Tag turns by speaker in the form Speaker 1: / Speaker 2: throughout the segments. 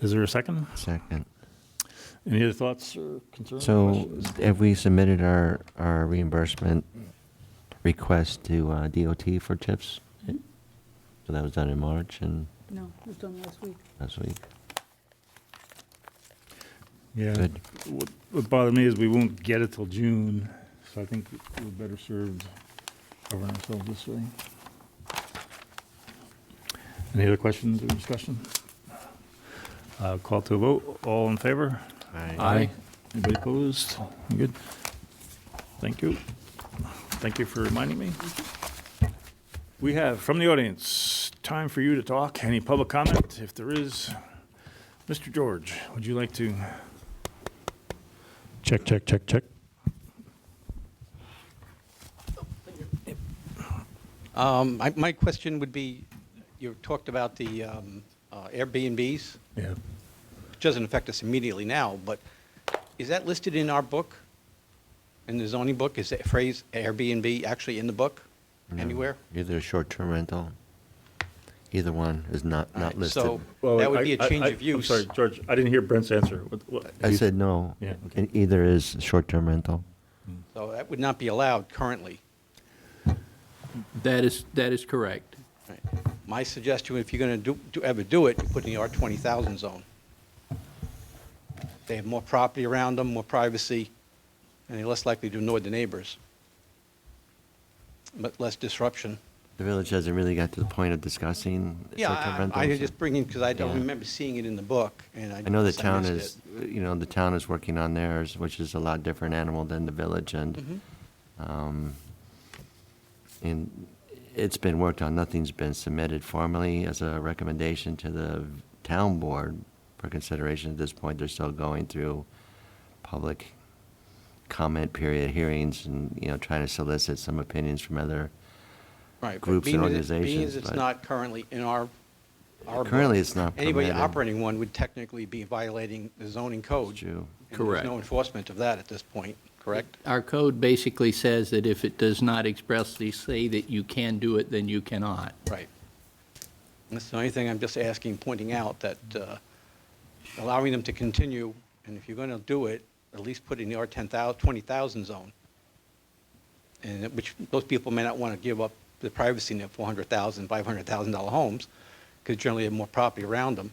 Speaker 1: Is there a second?
Speaker 2: Second.
Speaker 1: Any other thoughts or concerns?
Speaker 2: So
Speaker 1: questions?
Speaker 2: have we submitted our, our reimbursement request to uh, DOT for tips? So that was done in March and
Speaker 3: No, it was done last week.
Speaker 2: last week.
Speaker 1: Yeah.
Speaker 2: Good.
Speaker 1: What what bothered me is we won't get it till June, so I think we're better served covering ourselves this way. Any other questions or discussion? Uh, Call to a vote. All in favor?
Speaker 4: Aye.
Speaker 1: Anybody opposed? You Good. Thank you. Thank you for reminding me. We have, from the audience, time for you to talk. Any public comment? If there is, Mr. George, would you like to?
Speaker 5: Check, check, check, check.
Speaker 4: Um, my, my question would be, you talked about the um, uh, Airbnbs,
Speaker 1: Yeah.
Speaker 4: which doesn't affect us immediately now, but is that listed in our book? In the zoning book, is that phrase Airbnb actually in the book anywhere?
Speaker 2: Either a short-term rental, either one is not,
Speaker 4: All
Speaker 2: not
Speaker 4: right,
Speaker 2: listed.
Speaker 4: So that would be a change of use.
Speaker 1: I'm sorry, George, I didn't hear Brent's answer. What- what-
Speaker 2: I said no.
Speaker 1: Yeah, okay.
Speaker 2: E- Either is short-term rental.
Speaker 4: So that would not be allowed currently.
Speaker 6: That is, that is correct.
Speaker 4: Right. My suggestion, if you're going to do, do, ever do it, you put it in the R twenty thousand zone. They have more property around them, more privacy, and they're less likely to annoy the neighbors. But less disruption.
Speaker 2: The village hasn't really got to the point of discussing
Speaker 4: Yeah,
Speaker 2: short-term
Speaker 4: I-
Speaker 2: rentals.
Speaker 4: I, I just bring in, because I don't
Speaker 2: Yeah.
Speaker 4: remember seeing it in the book, and I.
Speaker 2: I know the
Speaker 4: guess
Speaker 2: town
Speaker 4: missed
Speaker 2: is,
Speaker 4: it.
Speaker 2: you know, the town is working on theirs, which is a lot different animal than the village,
Speaker 4: Mm-hmm.
Speaker 2: and, um, and it's been worked on, nothing's been submitted formally as a recommendation to the town board for consideration at this point, they're still going through public comment period hearings and, you know, trying to solicit some opinions from other,
Speaker 4: Right, but
Speaker 2: groups and
Speaker 4: being that it- Being
Speaker 2: organizations,
Speaker 4: as it's
Speaker 2: but-
Speaker 4: not currently in our, our. book,
Speaker 2: Currently, it's not
Speaker 4: Anybody
Speaker 2: permitted.
Speaker 4: operating one would technically be violating the zoning code.
Speaker 2: True.
Speaker 4: and there's
Speaker 6: Correct.
Speaker 4: no enforcement of that at this point, correct?
Speaker 6: Our code basically says that if it does not expressly say that you can do it, then you cannot.
Speaker 4: Right. That's the only thing I'm just asking, pointing out, that uh, allowing them to continue, and if you're going to do it, at least put it in the R 10,000, 20,000 zone, and it- which those people may not want to give up the privacy in their 400,000, 500,000 dollar homes, because generally they have more property around them.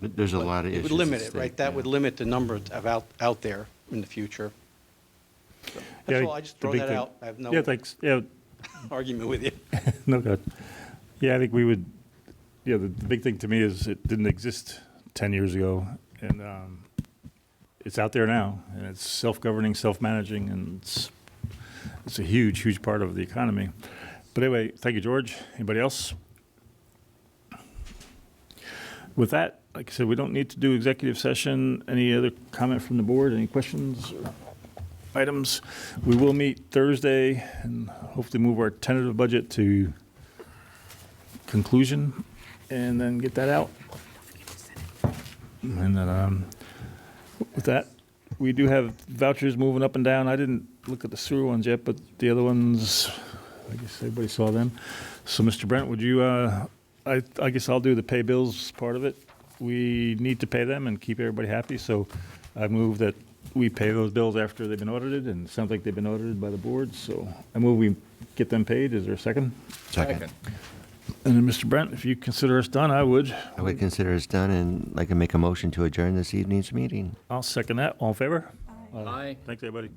Speaker 2: But there's a
Speaker 4: But
Speaker 2: lot of issues.
Speaker 4: It would
Speaker 2: at
Speaker 4: limit it,
Speaker 2: stake,
Speaker 4: right? That
Speaker 2: yeah.
Speaker 4: would limit the number of out, out there in the future. So, That's all, I just
Speaker 1: the
Speaker 4: throw
Speaker 1: big
Speaker 4: that
Speaker 1: thing-
Speaker 4: out. I have
Speaker 1: Yeah,
Speaker 4: no
Speaker 1: thanks. Yeah,
Speaker 4: argument with you.
Speaker 1: no, God. Yeah, I think we would, yeah, the, the big thing to me is it didn't exist 10 years ago, and um, it's out there now, and it's self-governing, self-managing, and it's, it's a huge, huge part of the economy. But anyway, thank you, George. Anybody else? With that, like I said, we don't need to do executive session. Any other comment from the board? Any questions or items? We will meet Thursday and hopefully move our tentative budget to conclusion and then get that out. And then, um, with that, we do have vouchers moving up and down. I didn't look at the sewer ones yet, but the other ones, I guess everybody saw them. So, Mr. Brent, would you, uh, I, I guess I'll do the pay bills part of it. We need to pay them and keep everybody happy, so I move that we pay those bills after they've been audited, and it sounds like they've been audited by the board, so I move we get them paid. Is there a second?
Speaker 2: Second.
Speaker 1: And then, Mr. Brent, if you consider us done, I would.
Speaker 2: I would consider it's done, and like to make a motion to adjourn this evening's meeting.
Speaker 1: I'll second that. All in favor?
Speaker 6: Aye.
Speaker 1: Thanks, everybody.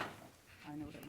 Speaker 3: I know that.